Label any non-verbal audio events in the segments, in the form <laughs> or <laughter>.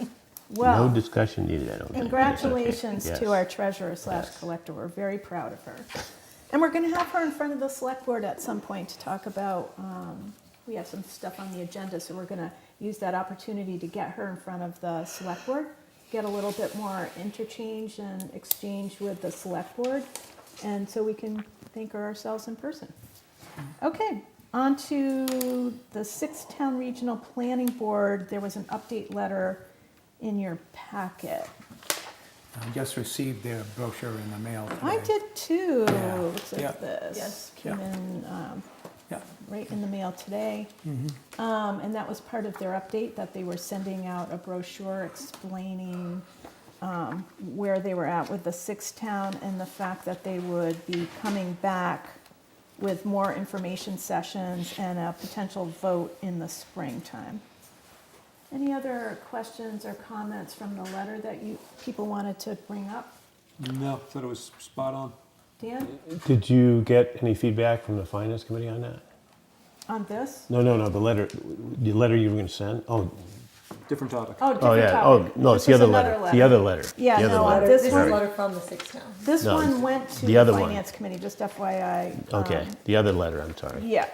No Well, discussion needed, I don't think. That's okay. congratulations to Yes. our treasurer slash Yes. collector. We're very proud of her. And we're going to have her in front of the select board at some point to talk about, um, we have some stuff on the agenda, so we're going to use that opportunity to get her in front of the select board, get a little bit more interchange and exchange with the select board, and so we can thank her ourselves in person. Okay, on to the sixth town regional planning board. There was an update letter in your packet. I just received their brochure in the mail today. I did too. Yeah. Looks Yeah. like this Yes. came Yeah. in um, Yeah, Mm-hmm. right in the mail today. Um, And that was part of their update, that they were sending out a brochure explaining um, where they were at with the six town and the fact that they would be coming back with more information sessions and a potential vote in the springtime. Any other questions or comments from the letter that you, people wanted to bring up? No, thought it was spot on. Dan, Did you get any feedback from the finance committee on that? on this? No, no, no, the letter, the letter you were going to send? Oh, Different topic. Oh, different oh, yeah, oh, topic. no, This it's the is other another letter, the other letter. Yeah, the other no, letter. Letter- Letter, this this is one- a letter from the six town. This No, one went to the other the one. finance committee, just FYI. Okay, Um, the other letter, I'm sorry. Yeah,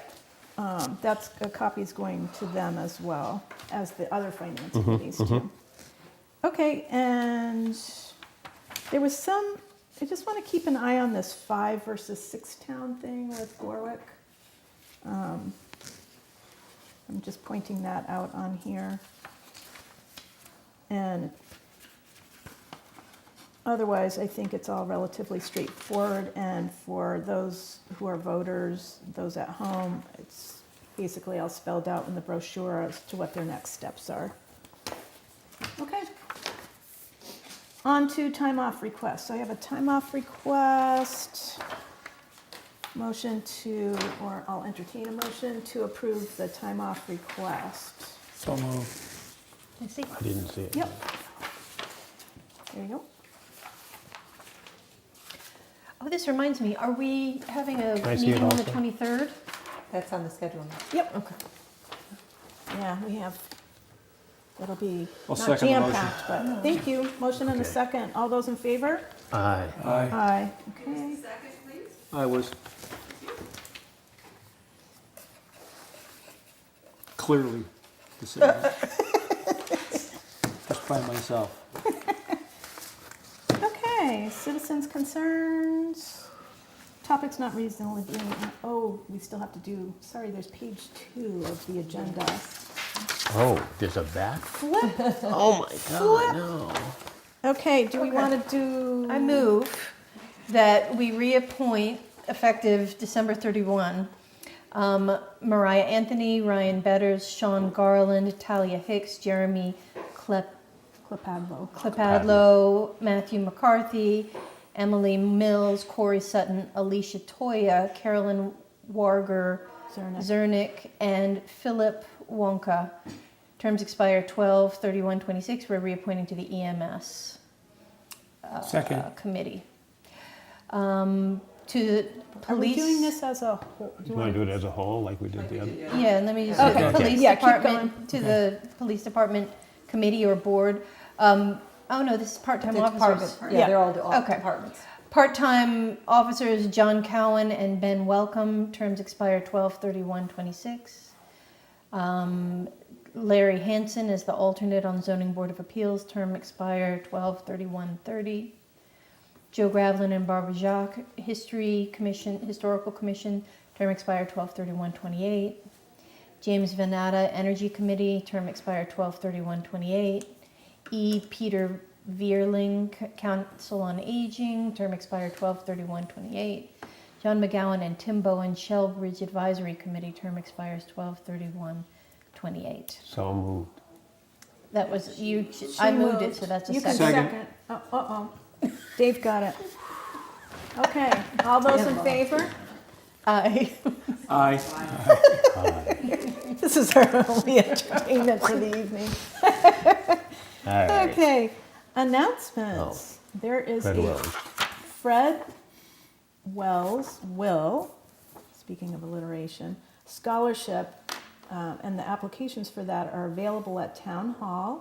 um, that's, a copy's going to them as well as the other finance Mm-hmm, committees too. Okay, and there was some, I just want to keep an eye on this five versus six town thing with Gorwick. Um, I'm just pointing that out on here. And Otherwise, I think it's all relatively straightforward, and for those who are voters, those at home, it's basically all spelled out in the brochure as to what their next steps are. Okay. On to time off requests. So I have a time off request. Motion to, or I'll entertain a motion to approve the time off request. so moved. I see. I didn't see it. Yep. There you go. Oh, this reminds me, are we having a I see it meeting on the also? 23rd? That's on the schedule. now. Yep. Okay. Yeah, we have, it'll be I'll not second the motion. jam-packed, but, thank you. Motion and a Okay. second. All those in favor? Aye. Aye. Aye. Okay. I was. <laughs> Clearly disabled. Just by myself. Okay, citizens' concerns. Topics not reasonably being, oh, we still have to do, sorry, there's page two of the agenda. Oh, there's a back? Flip. Oh, my God, no. Okay, do we Okay. want to do? I move that we reappoint, effective December 31, um, Mariah Anthony, Ryan Betters, Sean Garland, Talia Hicks, Jeremy Klep- Clipadlo. Klepadlo, Matthew McCarthy, Emily Mills, Corey Sutton, Alicia Toya, Carolyn Warger, Zernick. Zernick, and Philip Wonka. Terms expire 12 31 26. We're reappointing to the EMS Second, uh, committee. Um, to the Are we police. doing this as a whole? Do you want to do it as a whole, like we did the other? Yeah, and let me just, to Okay. the Okay. police Yeah, keep department, to the police department committee or board. Um, oh no, this is part-time The officers. department- Yeah. Yeah, they're all de- all Okay. departments. Part-time officers John Cowan and Ben Welcome, terms expire 12/31/26. Um, Larry Hansen is the alternate on zoning board of appeals, term expire 12/31/30. Joe Gravlin and Barbara Jacques, history commission, historical commission, term expire 12/31/28. James Venata, Energy Committee, term expire 12/31/28. E. Peter Veerling, C- Council on Aging, term expire 12/31/28. John McGowan and Tim Bowen, Shell Bridge Advisory Committee, term expires 12/31/28. So moved. That was you. I moved it, so that's a You can second. Second. second. Oh, Uh-oh, Dave got it. Okay, all those in favor? Aye. Aye. <laughs> This is our only entertainment for the evening. All right. Okay, announcements. There is Fred a Wells. Fred Wells Will, speaking of alliteration, scholarship um, and the applications for that are available at Town Hall.